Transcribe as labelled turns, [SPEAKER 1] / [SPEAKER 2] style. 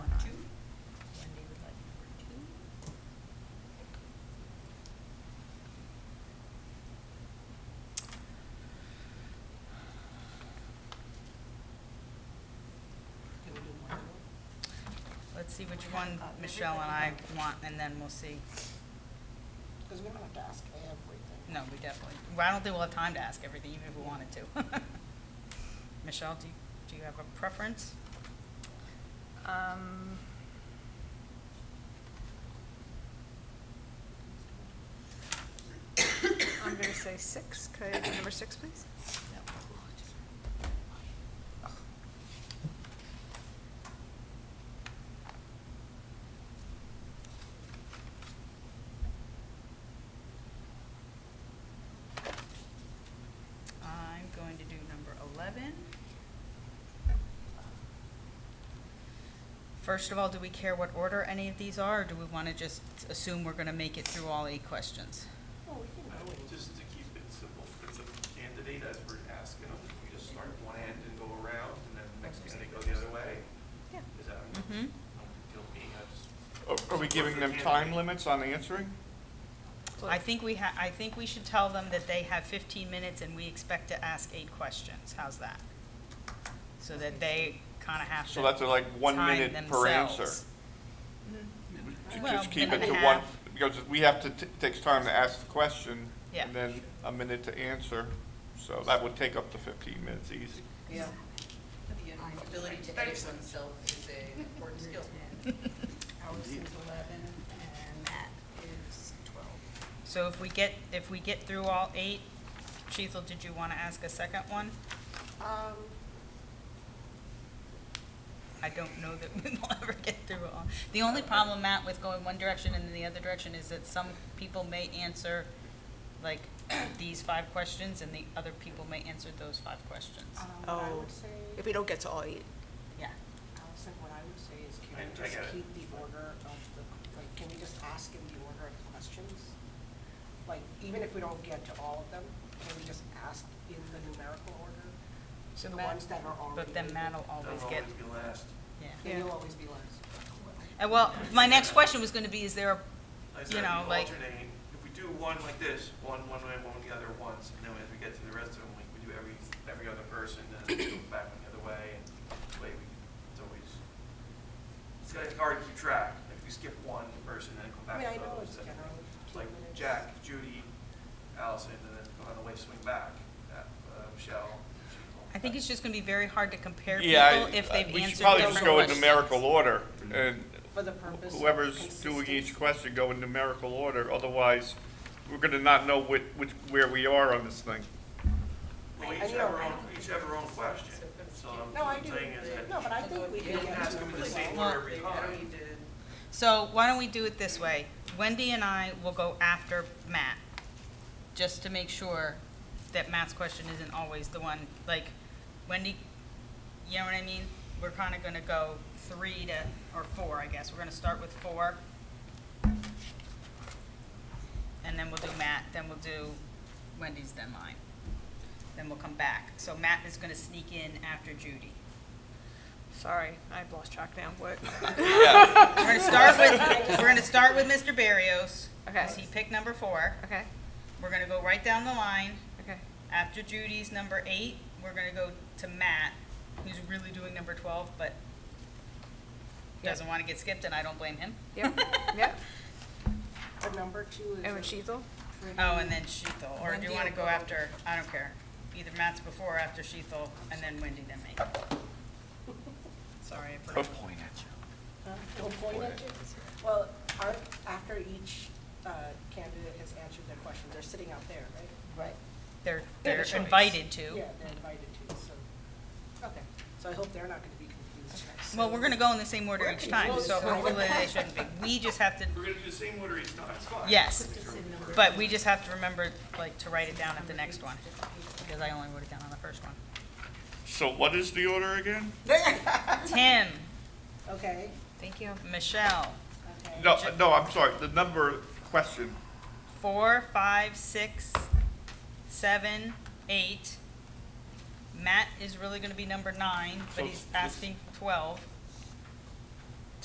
[SPEAKER 1] let's see which one Michelle and I want, and then we'll see.
[SPEAKER 2] Because we don't have to ask everything.
[SPEAKER 1] No, we definitely, well, I don't think we'll have time to ask everything, even if we wanted to. Michelle, do, you- do you have a preference?
[SPEAKER 3] Um, I'm gonna say six, could I have number six, please?
[SPEAKER 1] I'm going to do number 11. First of all, do we care what order any of these are, or do we want to just assume we're going to make it through all eight questions?
[SPEAKER 2] Well, we can
[SPEAKER 4] I
[SPEAKER 2] do
[SPEAKER 4] would
[SPEAKER 2] it.
[SPEAKER 4] Just to keep it simple, if it's a candidate as we're asking them, we just start at one end and go around, and then the next candidate go the other way.
[SPEAKER 3] Yeah.
[SPEAKER 4] Is that, I
[SPEAKER 1] Mm-hmm.
[SPEAKER 4] feel me, I just,
[SPEAKER 5] Are- Are we giving them time limits on answering?
[SPEAKER 1] I think we ha, I think we should tell them that they have 15 minutes and we expect to ask eight questions. How's that? So that they kind of have to.
[SPEAKER 5] So that's like one
[SPEAKER 1] time
[SPEAKER 5] minute per answer.
[SPEAKER 1] themselves.
[SPEAKER 5] To
[SPEAKER 1] Well,
[SPEAKER 5] Just keep
[SPEAKER 1] minute
[SPEAKER 5] it to
[SPEAKER 1] and a
[SPEAKER 5] one,
[SPEAKER 1] half.
[SPEAKER 5] because we have to, t- takes time to ask the question.
[SPEAKER 1] Yeah.
[SPEAKER 5] And then a minute to answer, so that would take up to fifteen minutes easy.
[SPEAKER 6] Yeah. The ability to edit oneself is a important skill.
[SPEAKER 2] Ours is eleven, and that is twelve.
[SPEAKER 1] So if we get, if we get through all eight, Cecil, did you want to ask a second one?
[SPEAKER 2] Um,
[SPEAKER 1] I don't know that we will ever get through all. The only problem, Matt, with going one direction and then the other direction is that some people may answer like these five questions and the other people may answer those five questions.
[SPEAKER 2] um, what I
[SPEAKER 3] Oh.
[SPEAKER 2] would say,
[SPEAKER 3] If we don't get to all eight,
[SPEAKER 1] Yeah.
[SPEAKER 2] Allison, what I would say is can
[SPEAKER 4] I-
[SPEAKER 2] we
[SPEAKER 4] I
[SPEAKER 2] just
[SPEAKER 4] get it.
[SPEAKER 2] keep the order of the, like, can we just ask in the order of questions? Like, even if we don't get to all of them, can we just ask in the numerical order?
[SPEAKER 1] So
[SPEAKER 2] The
[SPEAKER 1] Matt-
[SPEAKER 2] ones that are already.
[SPEAKER 1] But then Matt will
[SPEAKER 4] that'll
[SPEAKER 1] always get,
[SPEAKER 4] always be last.
[SPEAKER 1] yeah.
[SPEAKER 2] Then you'll
[SPEAKER 3] Yeah.
[SPEAKER 2] always be last.
[SPEAKER 1] And well, my next question was gonna be, is there a,
[SPEAKER 4] I
[SPEAKER 1] You
[SPEAKER 4] said,
[SPEAKER 1] know, like-
[SPEAKER 4] alternate, if we do one like this, one one way, one the other once, and then as we get to the rest of them, like, we do every, every other person, and then we go back the other way, and the way we, it's always, it's kind of hard to keep track, like, if we skip one person, then go
[SPEAKER 2] I
[SPEAKER 4] back
[SPEAKER 2] mean, I
[SPEAKER 4] to
[SPEAKER 2] know it's
[SPEAKER 4] those, and
[SPEAKER 2] generally two
[SPEAKER 4] like
[SPEAKER 2] minutes.
[SPEAKER 4] Jack, Judy, Allison, and then go on the way, swing back, that, uh, Michelle. she told
[SPEAKER 1] I think
[SPEAKER 4] that.
[SPEAKER 1] it's just gonna be very hard to compare people
[SPEAKER 5] Yeah, I-
[SPEAKER 1] if they've
[SPEAKER 5] we should
[SPEAKER 1] answered
[SPEAKER 5] probably just
[SPEAKER 1] different
[SPEAKER 5] go in
[SPEAKER 1] questions.
[SPEAKER 5] numerical order, and
[SPEAKER 2] For the purpose of
[SPEAKER 5] whoever's doing
[SPEAKER 2] consistency.
[SPEAKER 5] each question, go in numerical order, otherwise, we're gonna not know which, which, where we are on this thing.
[SPEAKER 4] Well,
[SPEAKER 2] I- I
[SPEAKER 4] each
[SPEAKER 2] know,
[SPEAKER 4] have our
[SPEAKER 2] I
[SPEAKER 4] own,
[SPEAKER 2] don't-
[SPEAKER 4] each have our own question, so
[SPEAKER 2] No, I
[SPEAKER 4] I'm
[SPEAKER 2] do.
[SPEAKER 4] saying is that.
[SPEAKER 2] No, but I
[SPEAKER 6] oh,
[SPEAKER 2] think we
[SPEAKER 4] You
[SPEAKER 2] can
[SPEAKER 4] don't
[SPEAKER 2] get
[SPEAKER 4] ask
[SPEAKER 2] to
[SPEAKER 4] them in the
[SPEAKER 2] it.
[SPEAKER 4] same
[SPEAKER 1] Well,
[SPEAKER 4] order every
[SPEAKER 6] I
[SPEAKER 4] time.
[SPEAKER 6] don't need to
[SPEAKER 1] So why don't we do it this way? Wendy and I will go after Matt, just to make sure that Matt's question isn't always the one, like, Wendy, you know what I mean? We're kinda gonna go three to, or four, I guess. We're gonna start with four. And then we'll do Matt, then we'll do Wendy's, then mine. Then we'll come back. So Matt is gonna sneak in after Judy.
[SPEAKER 3] sorry, I've lost track now, what?
[SPEAKER 1] We're gonna start with, we're gonna start with Mr. Barrios. 'cause
[SPEAKER 3] Okay.
[SPEAKER 1] he picked number four.
[SPEAKER 3] Okay,
[SPEAKER 1] We're gonna go right down the line.
[SPEAKER 3] okay,
[SPEAKER 1] After Judy's number eight, we're gonna go to Matt, who's really doing number twelve, but doesn't wanna get skipped, and I don't blame him.
[SPEAKER 3] yep, yep,
[SPEAKER 2] The number two is.
[SPEAKER 3] and
[SPEAKER 2] a
[SPEAKER 3] with Sheethel?
[SPEAKER 2] pretty-
[SPEAKER 1] Oh, and then Sheathel, or do you
[SPEAKER 6] Wendy
[SPEAKER 1] wanna
[SPEAKER 6] will
[SPEAKER 1] go
[SPEAKER 6] go.
[SPEAKER 1] after, I don't care. Either Matt's before or after Sheathel, and then Wendy, then me. Sorry, I forgot.
[SPEAKER 2] Huh? Don't point at Uh, it. Well, aren't, after each uh, candidate has answered their question, they're sitting out there, right? Right.
[SPEAKER 1] They're,
[SPEAKER 3] They're
[SPEAKER 1] they're
[SPEAKER 3] the choice.
[SPEAKER 1] invited to.
[SPEAKER 2] Yeah, they're invited to, so, okay. So I hope they're not going to be confused.
[SPEAKER 1] Well, we're gonna go in the same order
[SPEAKER 2] We're
[SPEAKER 1] each time, so
[SPEAKER 2] confused.
[SPEAKER 1] hopefully they shouldn't be. We just have to
[SPEAKER 4] We're gonna do the same order each time, it's fine.
[SPEAKER 1] Yes.
[SPEAKER 4] It's your-
[SPEAKER 1] But we just have to remember, like, to write it down at the next one, because I only wrote it down on the first one.
[SPEAKER 5] So what is the order again?
[SPEAKER 1] Tim,
[SPEAKER 2] Okay,
[SPEAKER 3] Thank you.
[SPEAKER 1] Michelle,
[SPEAKER 2] okay.
[SPEAKER 5] No, no, I'm sorry, the number question,
[SPEAKER 1] four, five, six, seven, eight. Matt is really gonna be number nine, but
[SPEAKER 5] So
[SPEAKER 1] he's
[SPEAKER 5] it's-
[SPEAKER 1] asking twelve.